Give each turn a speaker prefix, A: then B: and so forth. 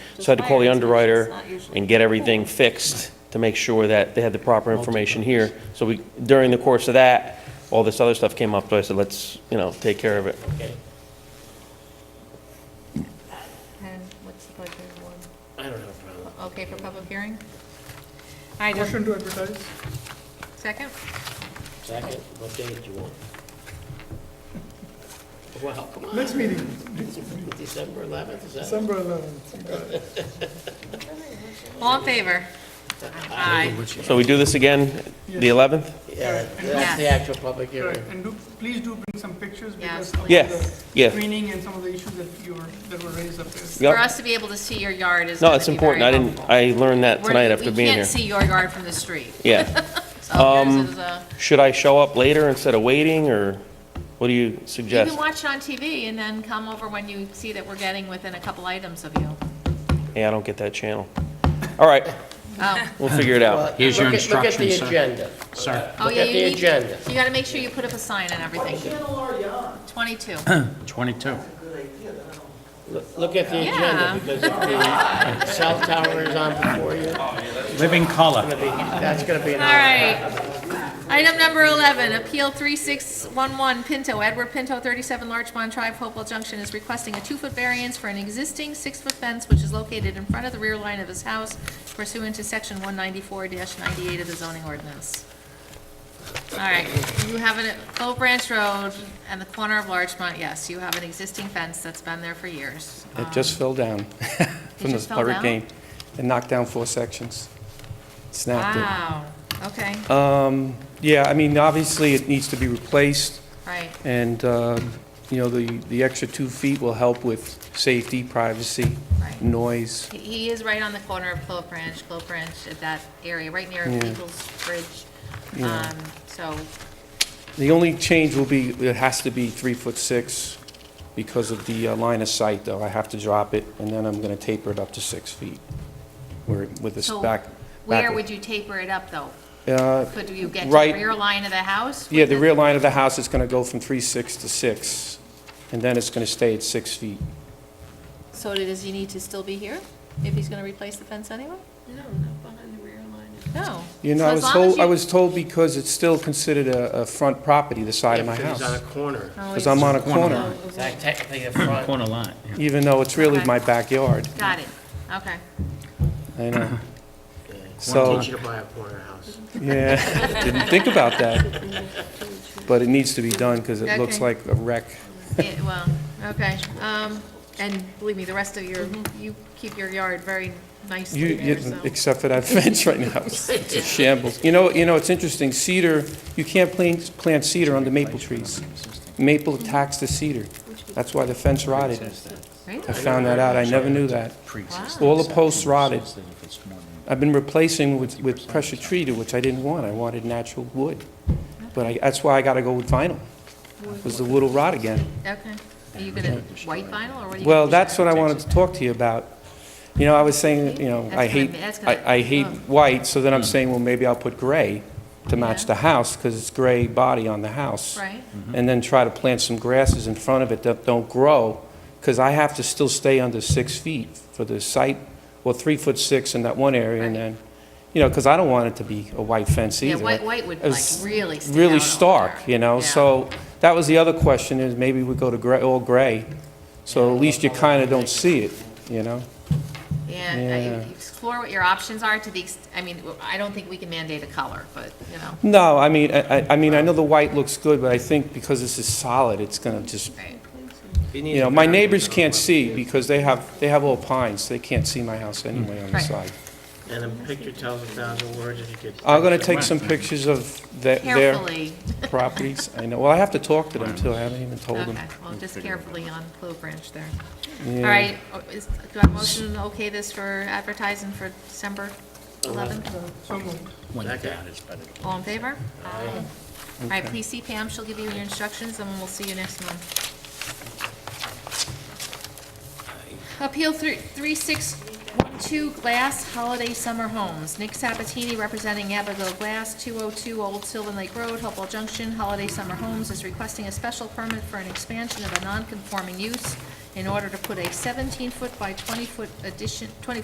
A: So I had to call the
B: fire inspection's
A: underwriter
B: not usually-
A: and get everything fixed to make sure that they had the proper information here. So we, during the course of that, all this other stuff came up, so I said, let's, you know, take care of it.
B: And what's the budget one?
C: I don't have a problem.
B: Okay for public hearing? I just,
D: Motion to advertise?
B: second?
C: Second, what day do you want? Wow, come on,
D: Next meeting,
C: December 11th, is that?
D: December 11th.
B: All in favor? Aye.
A: So we do this again, the 11th?
C: Yeah, that's the actual public
D: Right,
C: hearing.
D: and do, please do bring some pictures
B: Yeah,
D: because of
A: Yeah,
D: the
A: yeah.
D: screening and some of the issues that you were, that were raised up there.
B: For
A: Yeah.
B: us to be able to see your yard is
A: No,
B: gonna
A: it's
B: be very
A: important. I didn't,
B: helpful.
A: I learned that
B: We're-
A: tonight after being
B: We
A: here. Um,
B: can't see your yard from the street.
A: Yeah.
B: So yours is a,
A: Should I show up later instead of waiting, or what do you
B: you
A: suggest?
B: can watch it on TV and then come over when you see that we're getting within a couple items of you.
A: Hey, I don't get that channel. All right,
B: Oh,
A: we'll figure it out.
E: Here's your
C: Look at-
E: instructions,
C: Look at the
E: sir.
C: agenda.
E: Sir,
B: oh
C: Look
B: yeah,
C: at
B: you
C: the
B: need,
C: agenda.
B: you gotta make sure you put up a sign and everything. Twenty-two.
E: 22.
C: Look- Look at the
B: Yeah.
C: agenda, because if the cell tower is on before you,
E: Living color.
C: that's going to be an
B: All
C: hour.
B: right. Item number 11, Appeal 3611 Pinto, Edward Pinto, 37 Larchmont Drive, Hopewell Junction, is requesting a two-foot variance for an existing six-foot fence which is located in front of the rear line of his house pursuant to section 194-98 of the zoning ordinance. All right, you have an, Old Branch Road and the corner of Larchmont, yes, you have an existing fence that's been there for years. Uh,
F: It just fell down from the
B: just fell
F: butter
B: down?
F: game. It knocked down four sections. Snapped
B: Wow, okay,
F: it. Um, Yeah, I mean, obviously, it needs to be replaced,
B: right,
F: and, uh, you know, the, the extra two feet will help with safety, privacy,
B: right.
F: noise.
B: He- He is right on the corner of Clove Branch, Clove Branch at that area, right near
F: Yeah.
B: Eagles Bridge.
F: Yeah.
B: Um, So,
F: The only change will be, it has to be three foot six because of the uh, line of sight, though. I have to drop it, and then I'm going to taper it up to six feet where, with this
B: So
F: back.
B: where
F: back-
B: would you taper it up, though?
F: Uh,
B: Could you get to the
F: Right.
B: rear line of the house?
F: Yeah, the
B: Would
F: rear line of the house is going to go from three six to 6, and then it's going to stay at 6 feet.
B: that- So does he need to still be here, if he's gonna replace the fence anyway? No, not behind the rear line. No.
F: You
B: So
F: know, I
B: as
F: was
B: long as
F: told, I
B: you-
F: was told because it's still considered a, a front property, the side of my
C: If it's on a
F: house.
C: corner,
B: Oh,
F: Because I'm on a corner,
E: Corner.
C: it's not technically a front.
E: Corner lot. yeah.
F: even though it's really
B: Okay.
F: my backyard.
B: Got it, okay.
F: I know.
C: Yeah.
F: So-
C: Teach you to buy a corner house.
F: Yeah, didn't think about that. But it needs to be done because it looks
B: Okay.
F: like a wreck.
B: Yeah, well, okay, um, and believe me, the rest of your, you keep your yard very
F: Mm-hmm. You,
B: nicely there,
F: you-
B: so.
F: except for that fence right now, it's it's a shambles. You know, you know, it's interesting, cedar, you can't plant, plant cedar under maple trees. Maple attacks the cedar. That's why the fence rotted.
B: Really?
F: I found that out, I never knew that.
B: Wow.
F: All the posts rotted. I've been replacing with, with pressure treated, which I didn't want, I wanted natural wood. But I, that's why I gotta go with vinyl, because the wood will rot again.
B: Okay, are you gonna white vinyl, or what are you?
F: Well,
B: gonna do?
F: that's what I wanted to talk to you about. You know, I was saying, you know, I
B: That's
F: hate,
B: gonna- that's gonna-
F: I, I hate
B: ugh.
F: white, so then I'm saying, well, maybe I'll put gray to match
B: Oh. Yeah.
F: the house, because it's gray body on the house.
B: Right,
F: And then try to plant some grasses in front of it that don't grow, because I have to still stay under six feet for the site, well, three foot six in that one area, and
B: Right.
F: then, you know, because I don't want it to be a white fence
B: yeah,
F: either.
B: white, white would
F: It
B: like
F: was
B: really stand out.
F: Really
B: over
F: stark,
B: there.
F: you know,
B: Yeah.
F: so that was the other question, is maybe we go to gray, all gray, so at least you kind of don't see it, you know?
B: Yeah,
F: yeah.
B: I- explore what your options are to the, ex- I mean, I don't think we can mandate a color, but, you know,
F: No, I mean, I, I- I mean, I know the white looks good, but I think because this is solid, it's gonna just,
B: right,
F: you know, my neighbors can't see because they have, they have all pines, they can't see my house anyway on the
B: Right.
F: side.
C: And a picture tells a thousand words if you could.
F: I'm gonna take some pictures of the- their
B: carefully,
F: properties, I know, well, I have to talk to them too, I haven't even told them.
B: okay, well, just carefully on Clove Branch there. All
F: Yeah.
B: right, oh, is, do I motion okay this for advertising for December eleventh?
D: Uh, So moved.
E: When you
C: Okay.
E: got it, but it-
B: All in favor? Aye. All right, please see Pam, she'll give you your instructions, and we'll see you next month. Appeal three- 3612 Glass Holiday Summer Homes. Nick Sabatini representing Abigail Glass, 202 Old Sylvan Lake Road, Hopewell Junction. Holiday Summer Homes is requesting a special permit for an expansion of a non-conforming use in order to put a 17-foot by 20-foot addition, 20